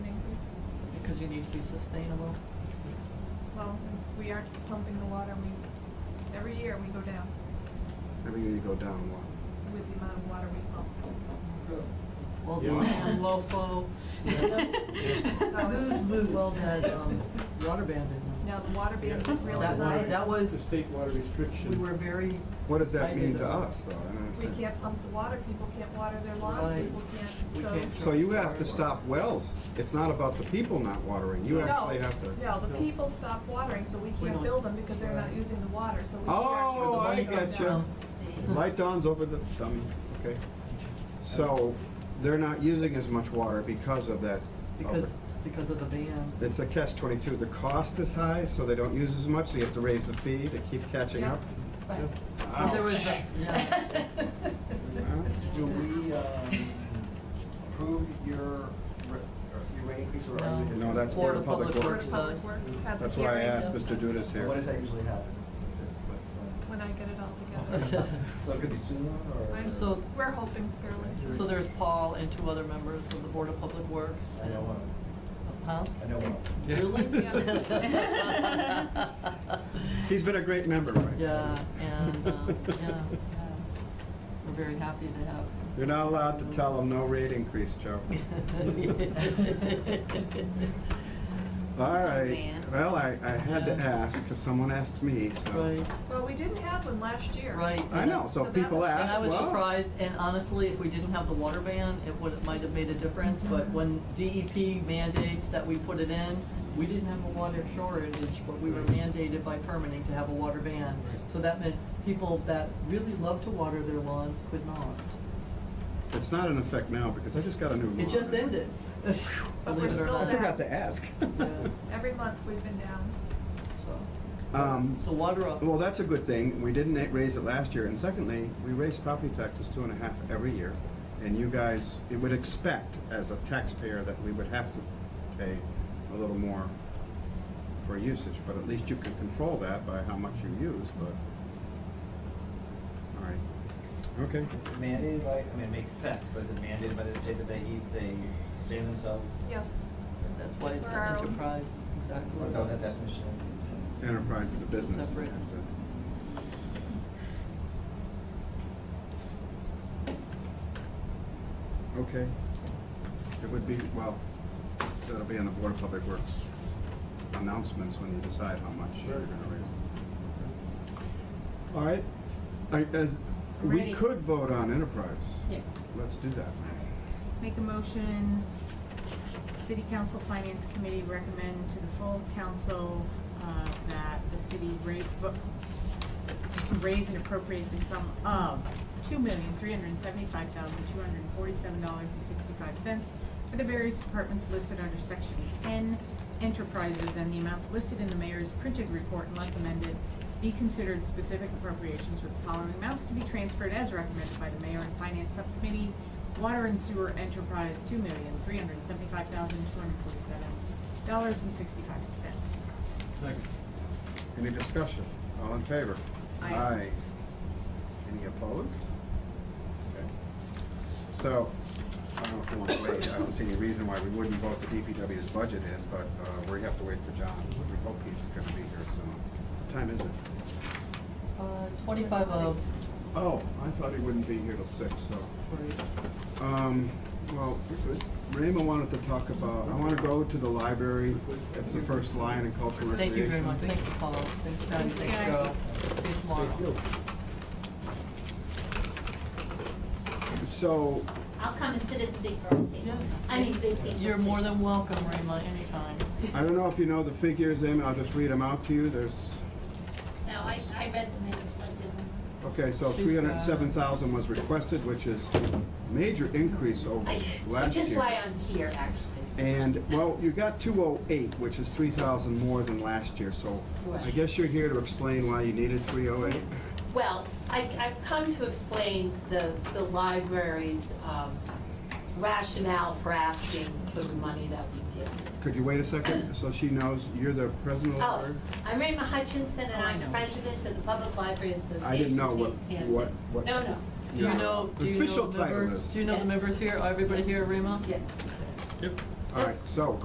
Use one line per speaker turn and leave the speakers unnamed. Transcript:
because you need to be sustainable.
Well, we aren't pumping the water, we, every year we go down
Every year you go down one.
with the amount of water we pump.
Old
Yeah.
man, lofo.
So it's-
Booze, boo, wells had, um, water band in them.
Now, the water being
Yeah.
really
That
nice.
was, that
The
was,
state water restriction.
we were very.
What does that
excited
mean to
about-
us, though? I don't
We
understand.
can't pump the water, people can't water their lawns,
Right.
people
We
can't, so.
can't.
So you have to stop wells. It's not about the people not watering. You
No,
actually have to.
No, the
No.
people stop watering, so we
We
can't
don't.
build them because they're not
Right.
using the water, so we.
Oh,
start-
I
Light goes
get you.
down.
Light dawns over the dummy, okay? So they're not using as much water because of that.
Because, because of the ban.
It's a catch twenty-two. The cost is high, so they don't use as much, so you have to raise the fee to keep catching
Yeah.
up.
Yeah.
But There was,
Ouch.
a- yeah,
Huh?
Do we um, approve your, re- or your rate increase or are you?
No, that's
Board
Board
of
of Public
Public
Board
Works.
of
Works.
Public Works has a
That's why I
hearing.
asked Mr. Judas here.
What does that usually happen?
When I get it all together.
So it could be sooner or?
I'm-
So-
We're hoping fairly soon.
so there's Paul and two other members of the Board of Public Works.
I know one.
Huh?
I know one.
Yeah.
Really?
He's been a great member, right?
Yeah, and, um, yeah, yes. We're very happy to have.
You're not allowed to tell them no rate increase, Joe. All right,
Van.
well, I, I had to
Yeah.
ask, because someone asked me, so.
Right,
Well, we didn't have one last year.
right.
I know,
So
so
that
people
was-
And I
ask,
was
well,
surprised, and honestly, if we didn't have the water ban, it would, it might have made a difference, but when DEP mandates that we put it in, we didn't have a water shortage, but we were mandated by permitting to have a water ban. So that meant people that really love to water their lawns could not.
it's not in effect now, because I just got a new
It just
monitor.
ended.
But
Believe
we're
it or
still
I
not.
forgot to ask.
Yeah,
Every month we've been down.
so-
Um,
So water up.
Well, that's a good thing. We didn't raise it last year. And secondly, we raise property taxes two and a half every year. And you guys, you would expect as a taxpayer that we would have to pay a little more for usage, but at least you can control that by how much you use, but, all right. Okay.
Is it mandated by, I mean, it makes sense, but is it mandated by the state that they eat, they sustain themselves?
Yes.
That's why it's
For our
an
own-
enterprise, exactly.
What's that definition? is?
Enterprise is a
It's a
business.
separate-
You have to- Okay. It would be, well, that'll be on the Board of Public Works announcements when you decide how much you're
Sure.
gonna raise. All right, I, as, we
Ready.
could vote on enterprise.
Yeah.
Let's do that.
Make a motion, City Council Finance Committee recommend to the full council uh, that the city rate, vo- raise and appropriate the sum of two million, three hundred and seventy-five thousand, two hundred and forty-seven dollars and sixty-five cents for the various departments listed under section ten enterprises and the amounts listed in the mayor's printed report unless amended be considered specific appropriations with the following amounts to be transferred as recommended by the mayor and finance subcommittee. Water and sewer enterprise, two million, three hundred and seventy-five thousand, two hundred and forty-seven dollars and sixty-five cents.
Second. Any discussion? All in favor?
Aye.
Any opposed? Okay. So, I don't know if you want to wait, I don't see any reason why we wouldn't vote the DPW's budget in, but uh, we have to wait for John. We hope he's gonna be here soon. What time is it?
Uh, Twenty-five of,
Oh, I thought he wouldn't be here till six, so. Um, well, Raymond wanted to talk about, I want to go to the library. It's the first line in cultural recreation.
thank you very much, thank you, Paul, thanks, Patty, thanks,
Thanks,
Joe, see you tomorrow.
So,
I'll come and sit at the big girls table.
Yes.
I mean, big table.
You're more than welcome, Rima, anytime.
I don't know if you know the figures, Amy, I'll just read them out to you, there's,
No, I, I read the minutes, but I didn't.
okay, so three hundred and seven thousand was requested, which is a major increase over
I-
last
Which is why
year.
I'm here, actually.
And, well, you got two oh eight, which is three thousand more than last year, so I
Right.
guess you're here to explain why you needed three oh eight.
Well, I, I've come to explain the, the library's um, rationale for asking for the money that we did.
Could you wait a second, so she knows you're the president of the
Oh,
library?
I'm Rayma Hutchinson, and
Oh, I
I'm
know.
president of the Public Library Association.
I didn't know what,
East Hampton.
what, what.
No, no.
Do you know, do you know
Official
the
title
members,
is-
do you know the
Yes.
members here, Are everybody here, Rima?
Yeah.
All right, so,